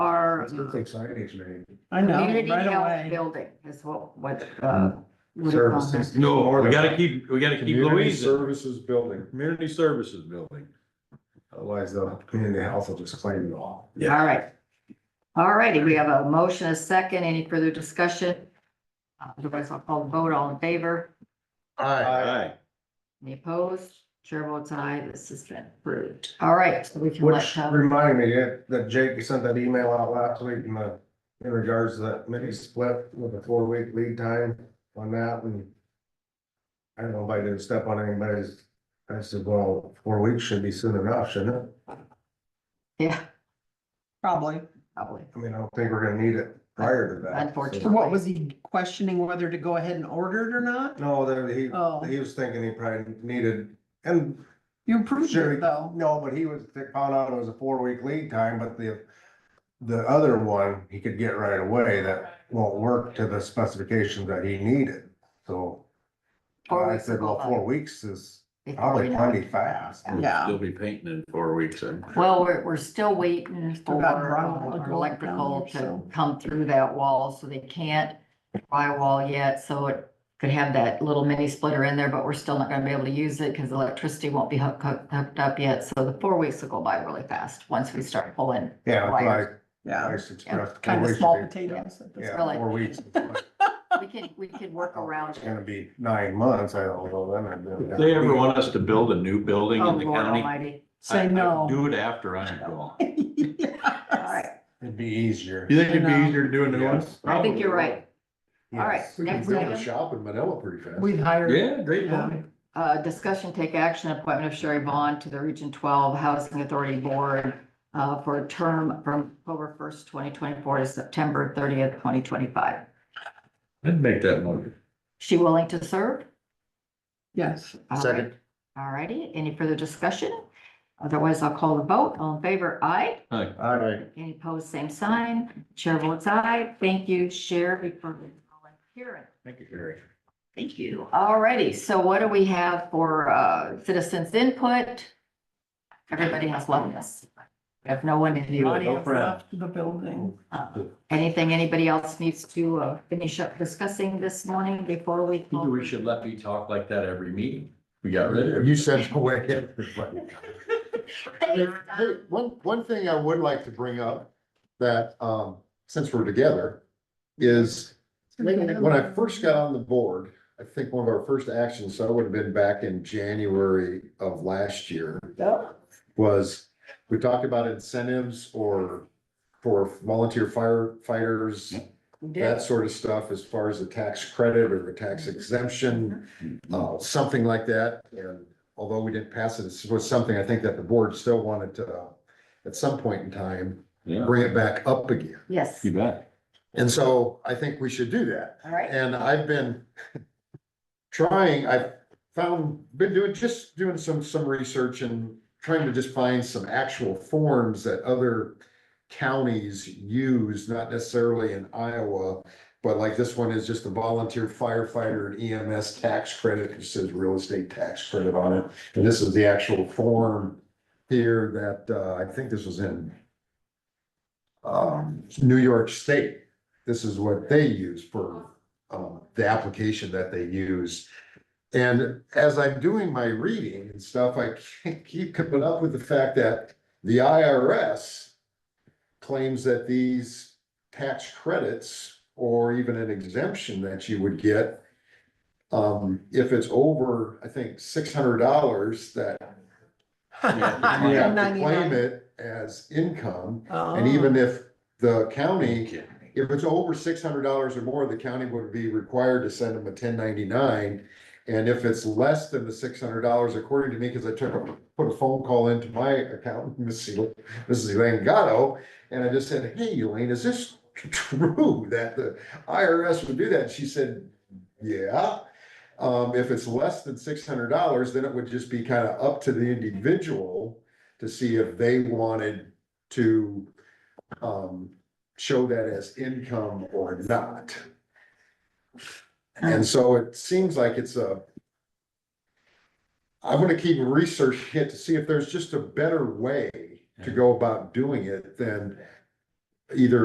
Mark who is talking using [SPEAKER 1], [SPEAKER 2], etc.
[SPEAKER 1] or
[SPEAKER 2] It's gonna
[SPEAKER 1] not.
[SPEAKER 2] take signage, man.
[SPEAKER 3] I know,
[SPEAKER 1] Community
[SPEAKER 3] right
[SPEAKER 1] health
[SPEAKER 3] away.
[SPEAKER 1] building is what, what, uh. what it's called.
[SPEAKER 2] Services.
[SPEAKER 4] No, we gotta keep, we gotta keep
[SPEAKER 2] Community
[SPEAKER 4] Louise, in.
[SPEAKER 2] Services Building,
[SPEAKER 4] community services building.
[SPEAKER 2] otherwise the community health will just claim it all.
[SPEAKER 4] Yeah.
[SPEAKER 1] All right. All righty, we have a motion, a second, any further discussion? Uh, Otherwise, I'll call the vote, all in favor,
[SPEAKER 4] Aye.
[SPEAKER 1] any opposed? Chair votes aye, this has been approved. All right, so we can let
[SPEAKER 2] Which
[SPEAKER 1] Tom.
[SPEAKER 2] reminded me that- that Jake sent that email out last week in the, in regards to that mini split with a four week lead time on that and. I don't know if I didn't step on anybody's, I said, well, four weeks should be soon enough, shouldn't it?
[SPEAKER 1] Yeah,
[SPEAKER 3] Probably.
[SPEAKER 1] probably.
[SPEAKER 2] I mean, I don't think we're gonna need it prior to that.
[SPEAKER 3] So
[SPEAKER 1] Unfortunately.
[SPEAKER 3] what was he questioning whether to go ahead and order it or not?
[SPEAKER 2] No, there, he,
[SPEAKER 3] Oh.
[SPEAKER 2] he was thinking he probably needed, and
[SPEAKER 3] You approved
[SPEAKER 2] Sure.
[SPEAKER 3] it though.
[SPEAKER 2] No, but he was, they found out it was a four week lead time, but the, the other one, he could get right away that won't work to the specifications that he needed, so.
[SPEAKER 1] Four
[SPEAKER 2] I
[SPEAKER 1] weeks
[SPEAKER 2] said,
[SPEAKER 1] will
[SPEAKER 2] well,
[SPEAKER 1] go
[SPEAKER 2] four
[SPEAKER 1] by.
[SPEAKER 2] weeks is
[SPEAKER 1] Before we
[SPEAKER 2] probably
[SPEAKER 1] know it.
[SPEAKER 2] plenty fast.
[SPEAKER 1] Yeah.
[SPEAKER 3] Yeah.
[SPEAKER 4] Still be painting in four weeks and.
[SPEAKER 1] Well, we're, we're still waiting
[SPEAKER 3] Still
[SPEAKER 1] for
[SPEAKER 3] got
[SPEAKER 1] uh,
[SPEAKER 3] drywall
[SPEAKER 1] our
[SPEAKER 3] going
[SPEAKER 1] electrical
[SPEAKER 3] down there,
[SPEAKER 1] to
[SPEAKER 3] so.
[SPEAKER 1] come through that wall, so they can't drywall yet, so it could have that little mini splitter in there, but we're still not gonna be able to use it because electricity won't be hooked, hooked hooked up yet, so the four weeks will go by really fast once we start pulling.
[SPEAKER 2] Yeah, that's why I
[SPEAKER 3] Yeah,
[SPEAKER 2] expressed. four
[SPEAKER 3] kind of
[SPEAKER 2] weeks
[SPEAKER 3] small
[SPEAKER 2] would be-
[SPEAKER 3] potatoes. at this
[SPEAKER 2] Yeah,
[SPEAKER 3] point.
[SPEAKER 1] Really.
[SPEAKER 2] four weeks. It's
[SPEAKER 1] We can, we can work around it.
[SPEAKER 2] gonna be nine months, I don't know, then I'd be.
[SPEAKER 4] If they ever want us to build a new building
[SPEAKER 1] Oh,
[SPEAKER 4] in the
[SPEAKER 1] Lord
[SPEAKER 4] county. I-
[SPEAKER 1] almighty.
[SPEAKER 3] Say
[SPEAKER 4] I
[SPEAKER 3] no.
[SPEAKER 4] Do it after I'm gone.
[SPEAKER 1] All right,
[SPEAKER 2] It'd be easier.
[SPEAKER 4] You think it'd be
[SPEAKER 3] No.
[SPEAKER 4] easier to do a new one?
[SPEAKER 2] Yes.
[SPEAKER 1] I think you're right. All right,
[SPEAKER 2] Yes.
[SPEAKER 1] next item,
[SPEAKER 2] shop in Manila pretty fast.
[SPEAKER 3] We've hired.
[SPEAKER 4] Yeah, great
[SPEAKER 3] Yeah.
[SPEAKER 4] building.
[SPEAKER 1] uh, discussion, take action, appointment of Sherry Bond to the Region Twelve Housing Authority Board uh, for a term from October first, twenty twenty-four to September thirtieth, twenty twenty-five.
[SPEAKER 4] I'd make that motion.
[SPEAKER 1] She willing to serve?
[SPEAKER 3] Yes.
[SPEAKER 1] Second. All righty, any further discussion? Otherwise, I'll call the vote. All in favor, aye.
[SPEAKER 4] Aye.
[SPEAKER 2] All right.
[SPEAKER 1] Any opposed, same sign. Chair votes aye. Thank you, Sherry, for volunteering.
[SPEAKER 4] Thank you, Gary.
[SPEAKER 1] Thank you. All righty, so what do we have for uh, citizens' input? Everybody has left us. We have no one in the audience.
[SPEAKER 3] Audience left the building.
[SPEAKER 1] Uh, Anything anybody else needs to uh, finish up discussing this morning before we?
[SPEAKER 4] Maybe we should let me talk like that every meeting. We got rid of it.
[SPEAKER 5] You sent away everybody.
[SPEAKER 1] Thanks,
[SPEAKER 5] Hey,
[SPEAKER 1] Don.
[SPEAKER 5] One, one thing I would like to bring up that, um, since we're together, is when I first got on the board, I think one of our first actions, so I would have been back in January of last year, was we talked about incentives or for volunteer firefighters, that sort of stuff as far as a tax credit or a tax exemption, uh, something like that. And although we didn't pass it, this was something I think that the board still wanted to, uh, at some point in time,
[SPEAKER 4] Yeah,
[SPEAKER 5] bring it back up again.
[SPEAKER 1] Yes,
[SPEAKER 4] you bet.
[SPEAKER 5] And so I think we should do that.
[SPEAKER 1] all right.
[SPEAKER 5] And I've been trying, I've found, been doing, just doing some, some research and trying to just find some actual forms that other counties use, not necessarily in Iowa, but like this one is just a volunteer firefighter and EMS tax credit, it says real estate tax credit on it. And this is the actual form here that, uh, I think this was in um, New York State. This is what they use for um, the application that they use. And as I'm doing my reading and stuff, I can't keep coming up with the fact that the IRS claims that these tax credits or even an exemption that you would get, um, if it's over, I think, six hundred dollars that you have to claim it as income.
[SPEAKER 3] Oh.
[SPEAKER 5] And even if the county if it's over six hundred dollars or more, the county would be required to send them a ten ninety-nine. And if it's less than the six hundred dollars, according to me, because I took, a- put a phone call into my accountant, Mrs. El- Mrs. Elaine Gatto, and I just said, hey, Elaine, is this true that the IRS would do that? She said, yeah. Um, if it's less than six hundred dollars, then it would just be kind of up to the individual to see if they wanted to um, show that as income or not. And so it seems like it's a. I'm gonna keep researching it to see if there's just a better way to go about doing it than either